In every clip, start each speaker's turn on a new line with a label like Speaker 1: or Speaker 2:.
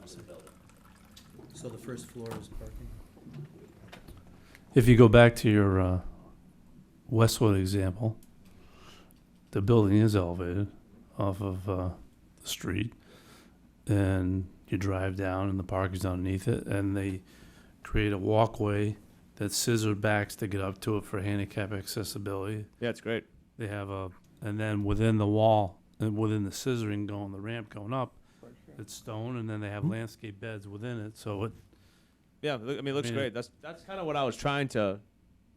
Speaker 1: use the building.
Speaker 2: So the first floor is parking?
Speaker 3: If you go back to your uh, Westwood example, the building is elevated off of uh, the street, and you drive down, and the park is underneath it, and they create a walkway that scissor backs to get up to it for handicap accessibility.
Speaker 4: Yeah, it's great.
Speaker 3: They have a, and then within the wall, and within the scissoring going, the ramp going up, it's stone, and then they have landscape beds within it, so it
Speaker 4: Yeah, loo- I mean, it looks
Speaker 3: mean,
Speaker 4: great. That's that's kind of what I was trying to.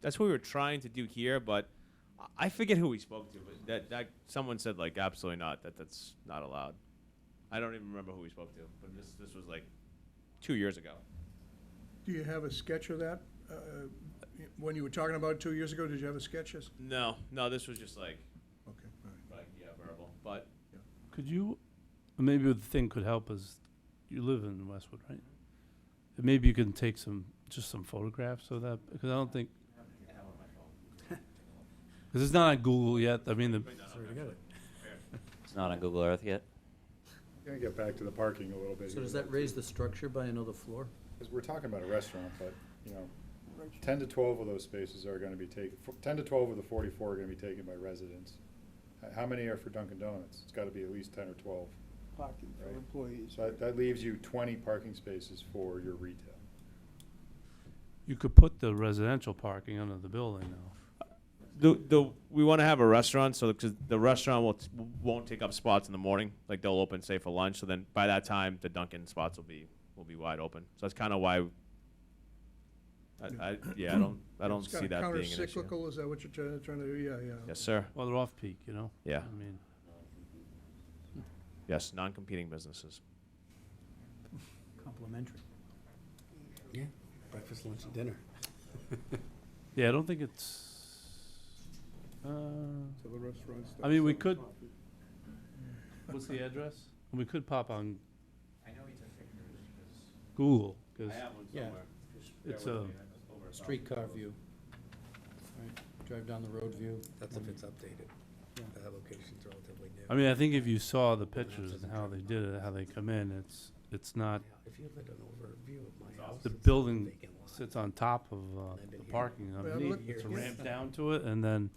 Speaker 4: That's what we were trying to do here, but I- I forget who we spoke to. But that that someone said like absolutely not. That that's not allowed. I don't even remember who we spoke to, but this this was like two years ago.
Speaker 5: Do you have a sketch of that? Uh, When you were talking about it two years ago, did you have a sketches?
Speaker 4: No, no, this was just like
Speaker 5: Okay, all right.
Speaker 4: like yeah verbal, but
Speaker 3: Could you, maybe the thing could help is, you live in Westwood, right? Maybe you can take some, just some photographs of that, because I don't think. Because it's not on Google yet, I mean, the,
Speaker 1: It's not on Google Earth yet?
Speaker 6: Gonna get back to the parking a little bit.
Speaker 2: So
Speaker 6: here,
Speaker 2: does
Speaker 6: though,
Speaker 2: that
Speaker 6: too,
Speaker 2: raise the structure by another floor?
Speaker 6: 'cause we're talking about a restaurant, but, you know, ten to twelve of those spaces are gonna be taken, ten to twelve of the forty-four are gonna be taken by residents. H- How many are for Dunkin' Donuts? It's gotta be at least ten or twelve.
Speaker 7: parking for
Speaker 6: Right.
Speaker 7: employees.
Speaker 6: So that, that leaves you twenty parking spaces for your retail.
Speaker 3: you could put the residential parking under the building now.
Speaker 4: the the we want to have a restaurant so because the restaurant will t- won't take up spots in the morning. Like they'll open say for lunch. So then by that time the Dunkin' spots will be will be wide open. So that's kind of why. I, I yeah I don't I don't see that being an
Speaker 5: It's kind of
Speaker 4: issue.
Speaker 5: counter-cyclical, is that what you're trying, trying to do? Yeah, yeah.
Speaker 4: Yes sir.
Speaker 3: Well, they're off peak, you know?
Speaker 4: Yeah.
Speaker 3: I mean,
Speaker 4: Yes. Non competing businesses.
Speaker 2: Complementary.
Speaker 8: Breakfast, lunch, and dinner.
Speaker 3: yeah, I don't think it's, uh,
Speaker 5: So the restaurants.
Speaker 3: I mean, we could, what's the address? We could pop on
Speaker 1: I know he took pictures
Speaker 3: Google, because
Speaker 1: one
Speaker 2: Yeah.
Speaker 3: it's a.
Speaker 2: Streetcar view. Right, Drive down the road view.
Speaker 8: That's if it's updated.
Speaker 2: Yeah.
Speaker 8: That location's relatively new.
Speaker 3: I mean, I think if you saw the pictures and how they did it, how they come in, it's, it's not,
Speaker 8: If you had an overview of my house.
Speaker 3: the
Speaker 8: it's a
Speaker 3: building
Speaker 8: vacant lot.
Speaker 3: sits on top of, uh, the parking
Speaker 5: Well,
Speaker 3: underneath,
Speaker 5: look-
Speaker 3: it's a ramp down to it, and then,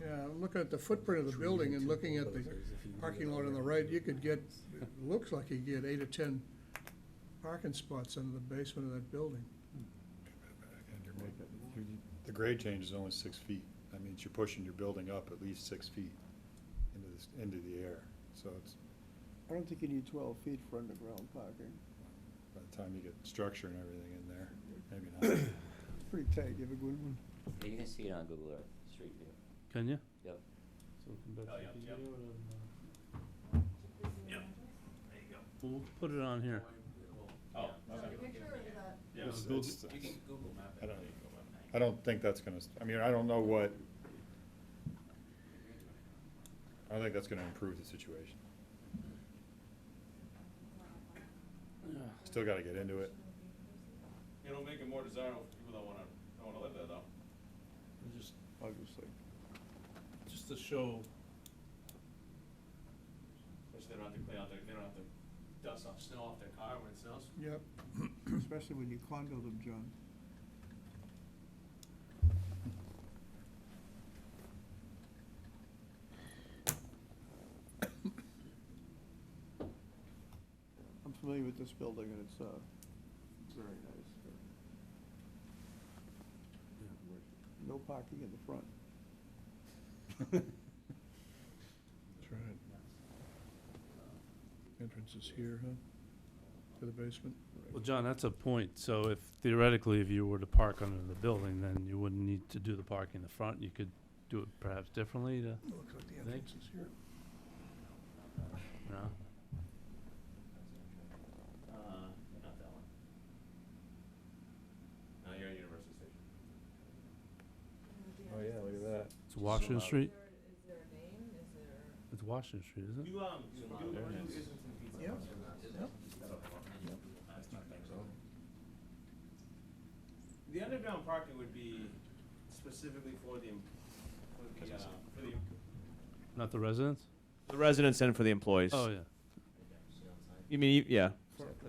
Speaker 5: Yeah, I'm looking at the footprint of the building and looking at the parking lot on the right, you could get, it looks like you get eight or 10 parking spots under the basement of that building.
Speaker 6: The grade change is only six feet. That means you're pushing your building up at least six feet into this, into the air. So it's,
Speaker 7: I don't think you need twelve feet for underground parking.
Speaker 6: by the time you get structure and everything in there, maybe not.
Speaker 7: It's pretty tight, you have a good one.
Speaker 1: You can see it on Google Earth, street view.
Speaker 3: can you?
Speaker 1: Yep.
Speaker 3: uh, We'll put it on here.
Speaker 6: It's- it's- I don't, I don't think that's gonna, I mean, I don't know what, I don't think that's gonna improve the situation. Still gotta get into it.
Speaker 4: It'll make it more desirable for people that want to don't want to live there though.
Speaker 3: Just,
Speaker 7: Obviously.
Speaker 3: just to show.
Speaker 4: Especially they don't have to clean out their they don't have to dust off snow off their car when it snows.
Speaker 5: Yep.
Speaker 7: Especially when you condo them, John. I'm familiar with this building and it's, uh, very nice. No parking in the front.
Speaker 5: That's right. Entrance is here, huh? To the basement?
Speaker 3: Well, John, that's a point, so if theoretically, if you were to park under the building, then you wouldn't need to do the parking in the front, you could do it perhaps differently to,
Speaker 5: Looks like the
Speaker 3: Thank-
Speaker 5: entrance is here.
Speaker 3: you know?
Speaker 4: Uh, not that one. No, you're at University Station.
Speaker 6: Oh, yeah, look at that.
Speaker 3: It's Washington
Speaker 4: Somehow.
Speaker 3: Street,
Speaker 9: Is there a name? Is there?
Speaker 3: it's Washington Street, isn't it?
Speaker 4: You um, you, you, you,
Speaker 5: Yeah.
Speaker 4: The underground parking would be specifically for the, em- for the, uh, for the.
Speaker 3: Not the residents?
Speaker 4: The residents and for the employees.
Speaker 3: Oh, yeah.
Speaker 4: You mean, you- yeah,